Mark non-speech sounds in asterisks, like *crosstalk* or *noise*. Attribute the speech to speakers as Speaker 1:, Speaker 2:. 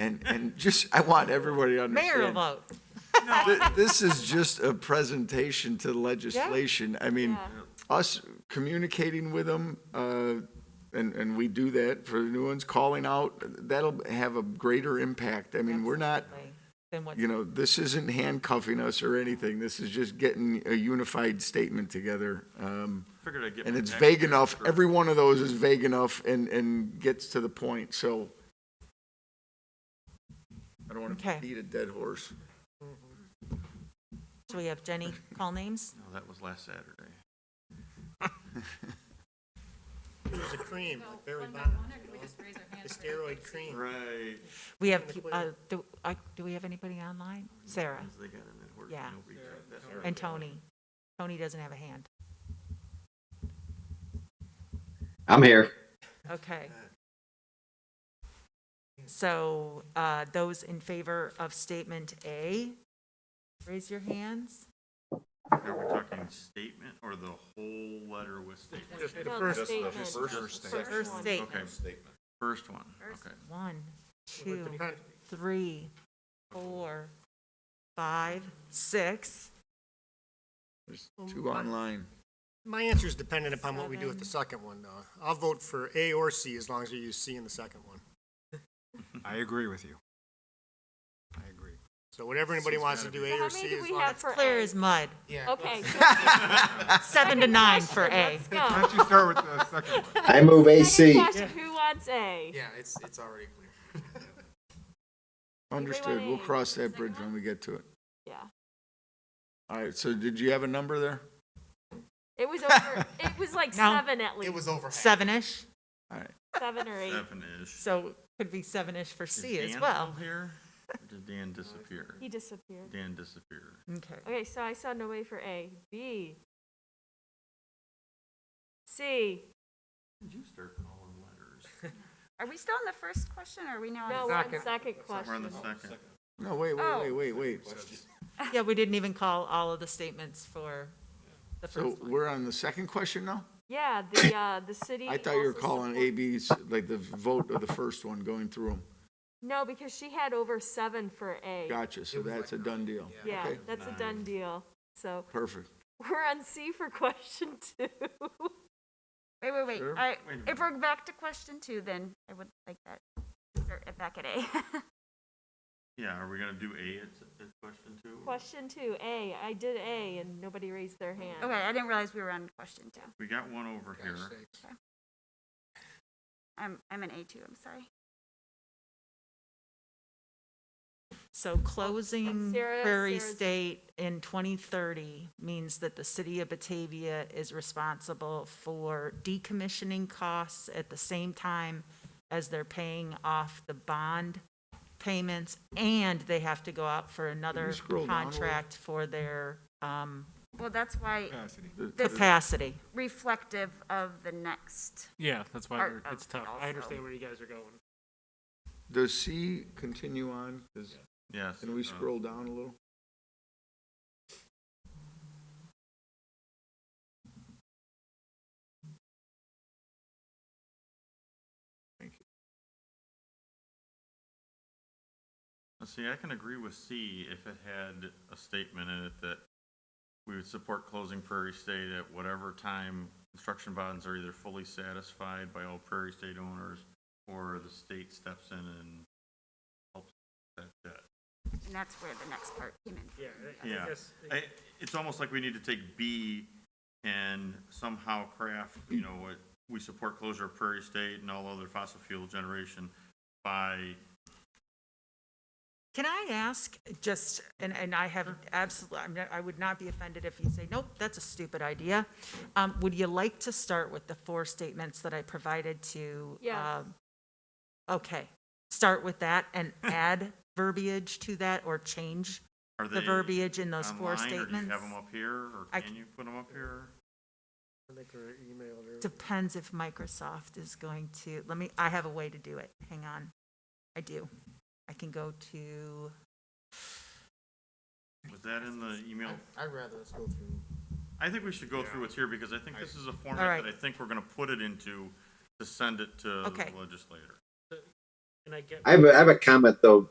Speaker 1: and, and just, I want everybody to understand.
Speaker 2: Mayor vote.
Speaker 1: Th- This is just a presentation to the legislation. I mean, us communicating with them, uh, and, and we do that for the new ones, calling out, that'll have a greater impact. I mean, we're not,
Speaker 2: Absolutely. Then what?
Speaker 1: you know, this isn't handcuffing us or anything. This is just getting a unified statement together. Um,
Speaker 3: Figured I'd get
Speaker 1: and
Speaker 3: my
Speaker 1: it's
Speaker 3: neck
Speaker 1: vague
Speaker 3: here
Speaker 1: enough.
Speaker 3: for-
Speaker 1: Every one of those is vague enough and, and gets to the point, so. I don't want
Speaker 2: Okay.
Speaker 1: to beat a dead horse.
Speaker 2: So we have Jenny call names?
Speaker 3: No, Oh, that was last Saturday.
Speaker 4: Use the cream, like Barry Bonds, the steroid cream.
Speaker 3: Right.
Speaker 2: We have, peop- uh, do, uh, do we have anybody online? Sarah
Speaker 3: They got in that horse,
Speaker 2: Yeah.
Speaker 3: nobody tried that.
Speaker 2: and Tony. Tony doesn't have a hand.
Speaker 5: I'm here.
Speaker 2: Okay. So, uh, those in favor of statement A, raise your hands.
Speaker 3: Are we talking statement or the whole letter with statement?
Speaker 4: Just the first,
Speaker 2: First
Speaker 3: Okay.
Speaker 2: statement,
Speaker 3: First one, okay.
Speaker 2: one,
Speaker 4: with
Speaker 2: two,
Speaker 4: the con-
Speaker 2: three, four, five, six.
Speaker 1: There's two online.
Speaker 4: My answer's dependent upon what we do with the second one, though. I'll vote for A or C as long as we use C in the second one.
Speaker 6: I agree with you. I agree.
Speaker 4: So whatever anybody wants to do, A
Speaker 7: How
Speaker 4: or
Speaker 7: many
Speaker 4: C
Speaker 7: do
Speaker 4: is
Speaker 7: we
Speaker 4: long.
Speaker 7: have
Speaker 4: as-
Speaker 7: for
Speaker 2: Clear
Speaker 7: A?
Speaker 2: as mud. Seven
Speaker 7: Okay.
Speaker 2: to
Speaker 7: second
Speaker 2: nine for
Speaker 7: question,
Speaker 2: A.
Speaker 7: Let's
Speaker 6: Why
Speaker 7: go.
Speaker 6: don't you start with the second one?
Speaker 5: I move
Speaker 7: *laughs* Second
Speaker 5: AC.
Speaker 7: question, who wants A?
Speaker 8: Yeah, it's, it's already clear.
Speaker 1: Understood. We'll
Speaker 7: wanna-
Speaker 1: cross that bridge when we get to it.
Speaker 7: Yeah.
Speaker 1: All right, so did you have a number there?
Speaker 7: It was over, it was like
Speaker 2: No.
Speaker 7: seven at least,
Speaker 8: It was over half.
Speaker 2: Seven-ish,
Speaker 1: All right.
Speaker 7: seven or eight.
Speaker 3: Seven-ish.
Speaker 2: so could be seven-ish for
Speaker 3: Is
Speaker 2: C as
Speaker 3: Dan
Speaker 2: well.
Speaker 3: still Here? Or Did Dan disappear?
Speaker 7: He disappeared.
Speaker 3: Dan disappeared.
Speaker 2: Okay.
Speaker 7: Okay, so I saw no way for A. B. C.
Speaker 3: Did you start calling letters?
Speaker 9: Are we still on the first question, or are we now on?
Speaker 7: No,
Speaker 9: the
Speaker 7: one second
Speaker 3: We're on the
Speaker 7: question.
Speaker 3: second.
Speaker 1: No, wait,
Speaker 7: Oh.
Speaker 1: wait, wait, wait, wait.
Speaker 2: Yeah, we didn't even call all of the statements for the
Speaker 1: So
Speaker 2: first one.
Speaker 1: we're on the second question now?
Speaker 7: Yeah, the, uh, the city.
Speaker 1: I thought you were
Speaker 7: also
Speaker 1: calling
Speaker 7: support-
Speaker 1: A, B's, like the vote of the first one, going through them.
Speaker 7: No, because she had over seven for A.
Speaker 1: Gotcha, so that's a done deal.
Speaker 7: Yeah,
Speaker 1: Okay,
Speaker 7: that's a done deal. So *laughs*
Speaker 1: Perfect.
Speaker 7: we're on C for question two.
Speaker 9: Wait, wait, wait.
Speaker 1: Sure.
Speaker 9: I-
Speaker 3: Wait a minute.
Speaker 9: If we're back to question two, then I would like that, or back at A. *laughs*
Speaker 3: Yeah, are we gonna do A at, at question two?
Speaker 7: Question two, A. I did A and nobody raised their hand.
Speaker 9: Okay, I didn't realize we were on question two.
Speaker 3: We got one over here.
Speaker 9: I'm, I'm an A two, I'm sorry.
Speaker 2: So closing
Speaker 7: Sarah-
Speaker 2: Prairie
Speaker 7: Sarah's-
Speaker 2: State in 2030 means that the city of Batavia is responsible for decommissioning costs at the same time as they're paying off the bond payments, and they have to go out for another
Speaker 1: scroll down a little?
Speaker 2: contract for their um,
Speaker 9: Well, that's why
Speaker 6: Cassidy.
Speaker 1: The-
Speaker 9: This-
Speaker 2: capacity.
Speaker 9: reflective of the next.
Speaker 10: Yeah, that's why
Speaker 9: Part
Speaker 10: we're,
Speaker 9: of
Speaker 10: it's tough.
Speaker 9: it
Speaker 10: I
Speaker 9: also.
Speaker 10: understand where you guys are going.
Speaker 1: Does C continue on? Does-
Speaker 3: Yes.
Speaker 1: Can we
Speaker 3: uh,
Speaker 1: scroll down a little?
Speaker 3: Uh, See, I can agree with C if it had a statement in it that we would support closing Prairie State at whatever time construction bonds are either fully satisfied by all Prairie State owners or the state steps in and helps that debt.
Speaker 9: And that's where the next part came in.
Speaker 10: Yeah, I- I
Speaker 3: Yeah.
Speaker 10: guess-
Speaker 3: I, it's almost like we need to take B and somehow craft, you know, what, we support closure of Prairie State and all other fossil fuel generation by
Speaker 2: Can I ask, just, and, and I have absolutely, I'm not, I would not be offended if you say, nope, that's a stupid idea. Um, would you like to start with the four statements that I provided to?
Speaker 7: Yeah.
Speaker 2: um, Okay, start with that
Speaker 3: *laughs*
Speaker 2: and add verbiage to that or change
Speaker 3: Are
Speaker 2: the
Speaker 3: they
Speaker 2: verbiage in those four
Speaker 3: online, Or do you have
Speaker 2: statements?
Speaker 3: them up here, or
Speaker 2: I
Speaker 3: can you put them up here?
Speaker 4: I think her email or-
Speaker 2: Depends if Microsoft is going to, let me, I have a way to do it. Hang on. I do. I can go to,
Speaker 3: Was that in the email?
Speaker 4: I'd rather us go through.
Speaker 3: I think we should go through what's here, because I think this is a format
Speaker 2: Alright.
Speaker 3: that I think we're gonna put it into to send it to the
Speaker 2: Okay.
Speaker 3: legislator.
Speaker 8: And I get
Speaker 5: I have, a, I have a comment though,